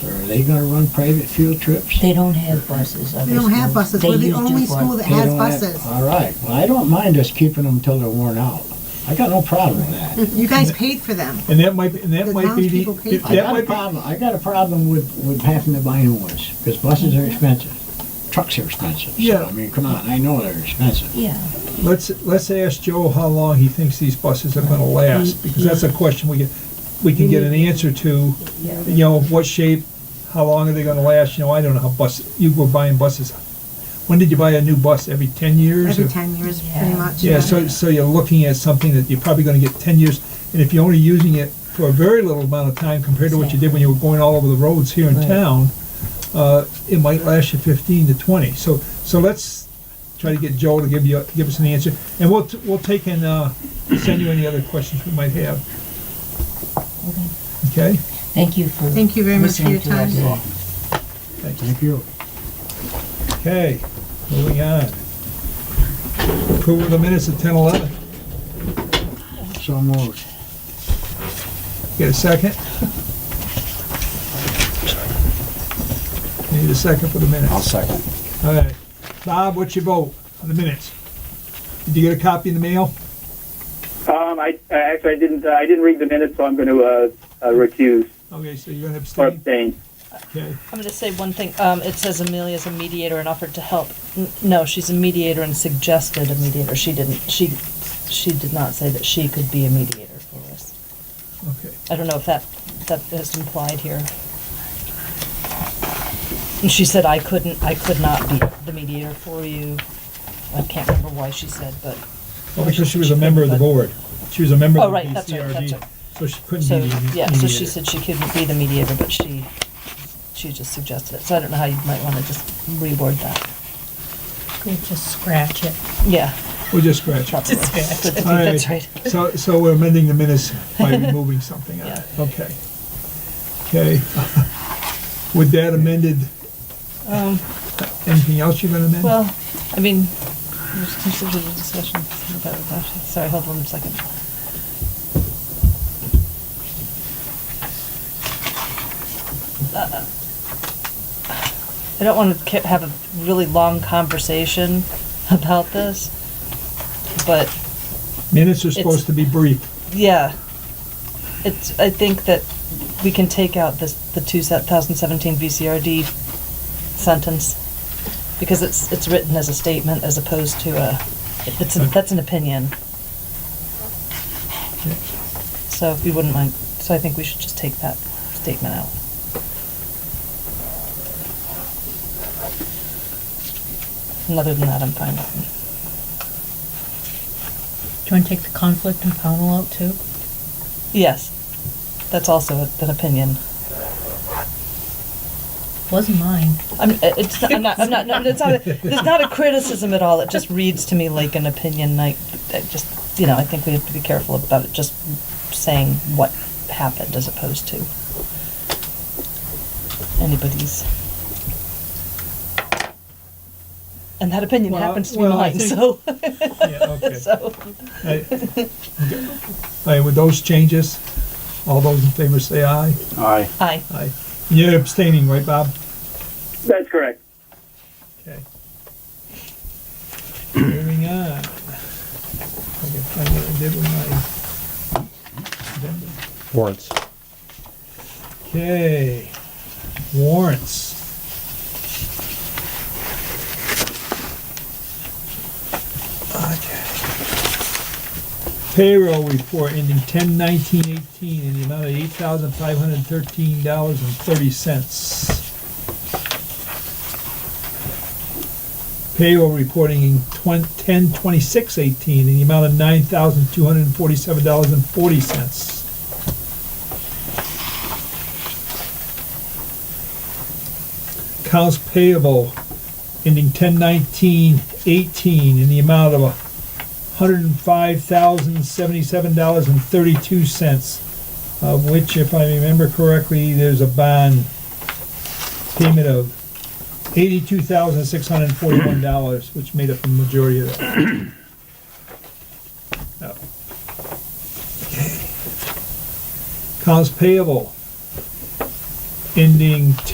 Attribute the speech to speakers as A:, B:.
A: they gonna run private field trips?
B: They don't have buses.
C: We don't have buses. We're the only school that
A: They
C: has
A: don't have-
C: buses.
A: All right, well, I don't mind us keeping them till they're worn out. I got no problem with that.
C: You guys paid for them.
D: And that might, and that
C: The
D: might be
C: townspeople
D: the,
C: pay
D: if
C: for
A: I
D: that
A: got a
D: might be,
A: problem, I got a problem with, with having to buy new ones, because buses are expensive. Trucks are expensive, so,
D: Yeah.
A: I mean, come on, I know they're expensive.
B: Yeah,
D: let's, let's ask Joe how long he thinks these buses are gonna last, because that's a question we, get we can get an answer to,
B: yeah.
D: you know, what shape, how long are they gonna last, you know, I don't know how bus, you were buying buses. When did you buy a new bus, every ten years?
C: Every
D: or-
C: ten years,
B: Yeah.
C: pretty much.
D: Yeah, so, so you're looking at something that you're probably gonna get ten years, and if you're only using it for a very little amount of time compared to what you did when you were going all over the roads here in
A: Right.
D: town, uh, it might last you fifteen to twenty, so, so let's try to get Joe to give you, give us an answer, and we'll, t- we'll take and, uh, send you any other questions we might have.
B: Okay.
D: Okay,
B: Thank you for
C: Thank you very much for
B: listening
C: your
B: to us.
C: time.
A: Thank you.
D: okay, moving on. Approval of the minutes at ten eleven,
A: So moved.
D: get a second? Need a second for the minutes.
E: second.
D: All right. Bob, what's your vote on the minutes? Did you get a copy in the mail?
F: Um, I, I actually I didn't uh, I didn't read the minutes, so I'm going to uh, uh, recuse
D: Okay, so you're gonna
F: or
D: abstain?
F: abstain.
D: Okay.
G: I'm gonna say one thing, um, it says Amelia's a mediator and offered to help. N- No, she's a mediator and suggested a mediator, she didn't, she, she did not say that she could be a mediator for us.
D: Okay.
G: I don't know if that, that is implied here. And she said I couldn't, I could not be the mediator for you. I can't remember why she said, but,
D: Well, Oh, because she was a member of the board. She was a member
G: oh,
D: of the
G: right, that's right, that's
D: BCRD,
G: right.
D: so she couldn't
G: So,
D: be the
G: yeah, so she
D: mediator.
G: said she couldn't be the mediator, but she, she just suggested it, so I don't know how you might wanna just reword that.
B: Could just scratch it.
G: Yeah.
D: We'll just scratch it.
G: probably. That's
D: All
G: that's right.
D: So, so we're amending the minutes by removing something out. of it. Okay. Okay. With that amended,
G: Um,
D: anything else you're gonna amend?
G: well, I mean, there's considered a discussion about that. Sorry, hold on a second. Uh, I don't want to have a really long conversation about this, but
D: Minutes are
G: it's-
D: supposed to be brief.
G: yeah. It's, I think that we can take out this, the two se- 2017 VCRD sentence, because it's, it's written as a statement as opposed to a, it's, a- that's an opinion. So if you wouldn't mind, so I think we should just take that statement out. And other than that, I'm fine with
B: Do you want to take the conflict and panel out too?
G: it. Yes, that's also an opinion.
B: Wasn't mine.
G: I'm, uh, it's not, I'm not, I'm not, no, it's not, a- it's not a criticism at all, it just reads to me like an opinion, like, I just, you know, I think we have to be careful about it, just saying what happened as opposed to anybody's. And that opinion
D: Well,
G: happens to be
D: well, I
G: mine,
D: think-
G: so,
D: Yeah, okay.
G: so,
D: Hey, okay. Hey, with those changes, all those in favor say aye.
E: Aye.
G: aye.
D: Aye. You're abstaining, right, Bob?
F: That's correct.
D: Okay. Moving on. I can find what I did with my agenda.
E: Warrants.
D: Okay, warrants. Okay. Payroll report ending ten nineteen eighteen in the amount of eight thousand five hundred thirteen dollars and thirty cents. Payroll reporting in twen- ten twenty-six eighteen in the amount of nine thousand two hundred and forty-seven dollars and forty cents. accounts payable ending ten nineteen eighteen in the amount of hundred and five thousand seventy-seven dollars and thirty-two cents, of which, if I remember correctly, there's a bond payment of eighty-two thousand six hundred and forty-one dollars, which made up the majority of that. Oh. Okay. Accounts payable ending